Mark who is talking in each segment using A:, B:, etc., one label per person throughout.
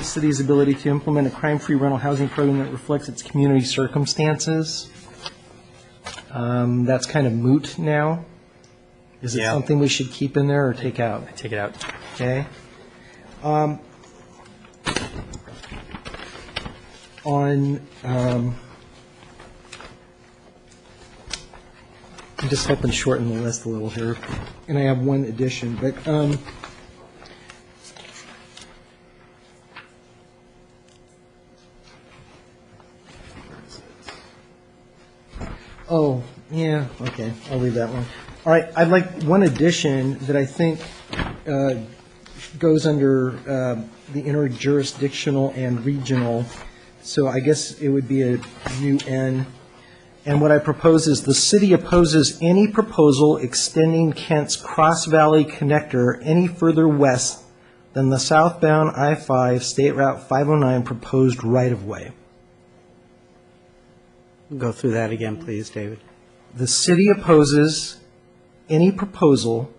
A: the city's ability to implement a crime-free rental housing program that reflects its community circumstances. Um, That's kind of moot now. Is it
B: Yeah.
A: something we should keep in there or take out?
B: Take it out.
A: Okay. Um, On, um, I'm just helping shorten the list a little here, and I have one addition, but, um, oh, yeah, okay, I'll leave that one. All right, I'd like one addition that I think uh, goes under uh, the interjurisdictional and regional, so I guess it would be a new N. And what I propose is the city opposes any proposal extending Kent's Cross Valley Connector any further west than the southbound I-5 State Route 509 proposed right-of-way.
C: Go through that again, please, David.
A: The city opposes any proposal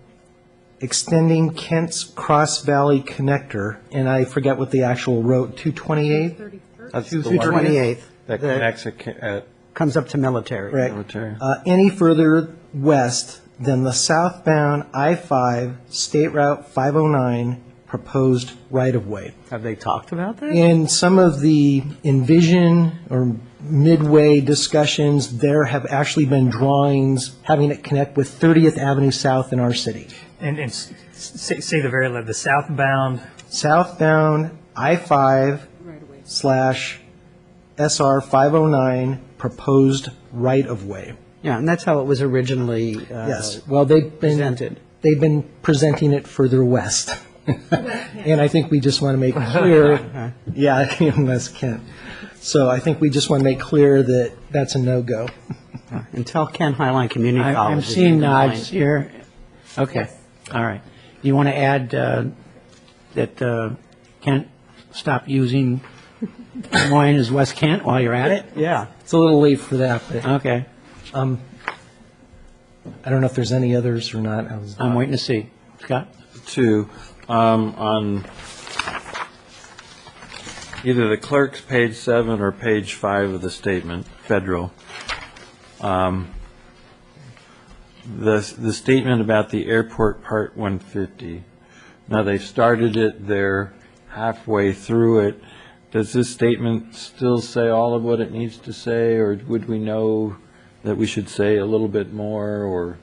A: extending Kent's Cross Valley Connector, and I forget what the actual road, 228?
B: That's
A: Two
B: the
A: through
B: one
C: 28th,
B: That
C: the-
B: connects a ca- uh,
C: comes up to military.
A: Right.
B: Military.
A: Uh, Any further west than the southbound I-5 State Route 509 proposed right-of-way.
C: Have they talked about that?
A: In some of the envision or midway discussions, there have actually been drawings having it connect with 30th Avenue South in our city.
D: And, and s- say, say the very, la- the southbound,
A: southbound I-5 slash SR 509 proposed right-of-way.
C: Yeah, and that's how it was originally. uh,
A: Yes, well, they've been,
C: presented.
A: they've been presenting it further west. And I think we just want to make clear, yeah, unless Kent. So I think we just want to make clear that that's a no-go.
C: And tell Kent Highline Community
E: I-
C: College.
E: I'm
C: if you
E: seeing
C: don't
E: nods
C: mind.
E: here. Okay, all right. Do you want to add uh, that uh, Kent stop using Des Moines as West Kent while you're at it?
C: Yeah.
A: It's a little late for that, but
E: Okay,
A: I don't know if there's any others or not. I was-
E: I'm waiting to see. Scott?
B: Two, um, on either the clerk's page seven or page five of the statement, federal. um, The, the statement about the airport part 150. Now, they've started it, they're halfway through it. Does this statement still say all of what it needs to say, or would we know that we should say a little bit more, or?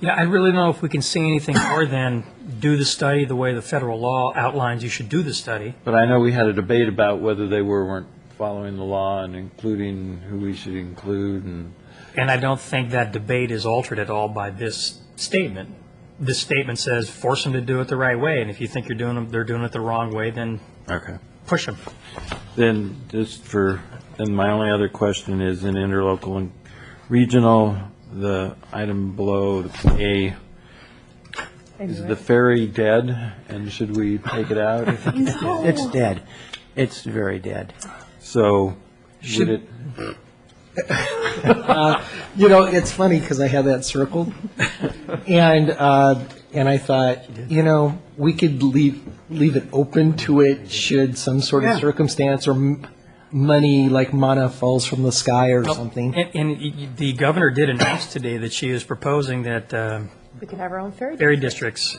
D: yeah, I really don't know if we can say anything more than do the study the way the federal law outlines you should do the study.
B: But I know we had a debate about whether they were, or weren't following the law and including who we should include and,
D: And I don't think that debate is altered at all by this statement. This statement says, force them to do it the right way, and if you think you're doing them, they're doing it the wrong way, then
B: okay.
D: push them.
B: Then, just for, then my only other question is in interlocal and regional, the item below, A, is the ferry dead, and should we take it out?
E: It's dead. It's very dead.
B: So, would it,
A: You know, it's funny because I had that circled, and uh, and I thought, you know, we could leave leave it open to it should some sort of circumstance or m- money like mana falls from the sky or something.
D: And, and y- y- the governor did announce today that she is proposing that um,
F: We could have our own ferry.
D: ferry districts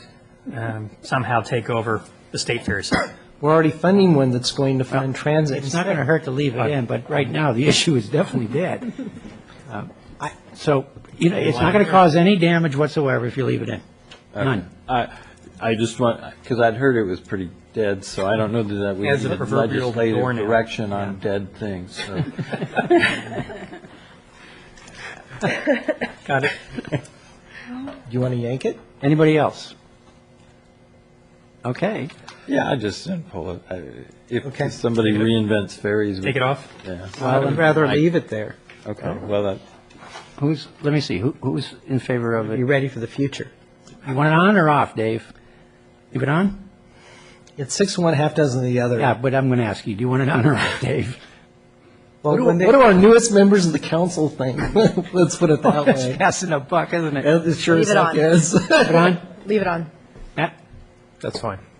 D: um, somehow take over the state ferry system.
A: We're already funding one that's going to fund transit.
E: It's not going to hurt to leave it in, but right now, the issue is definitely dead. Um, I- So, you know, it's not going to cause any damage whatsoever if you leave it in. None.
B: uh, I, I just want, because I'd heard it was pretty dead, so I don't know that we
D: As a
B: needed
D: proverbial
B: legislative
D: doornail.
B: direction on dead things, so.
D: Got it?
A: Do you want to yank it?
E: Anybody else? Okay.
B: Yeah, I just didn't pull it. I-
A: Okay.
B: If somebody reinvents ferries. we-
D: Take it off?
B: Yeah.
C: I would rather leave it there.
B: Okay, well, that,
E: Who's, let me see, who, who's in favor of it?
C: Be ready for the future.
E: You want it on or off, Dave? You it on?
A: It's six of one, half dozen of the other.
E: Yeah, but I'm going to ask you, do you want it on or off, Dave?
A: Well,
E: What do-
A: when they- what do our newest members of the council think? Let's put it that
E: That's
A: way.
E: passing a buck, isn't it?
A: It sure
F: Leave
A: as
F: it
A: heck
F: on.
A: is.
E: Put it on?
F: Leave it on.
E: Matt?
D: That's fine.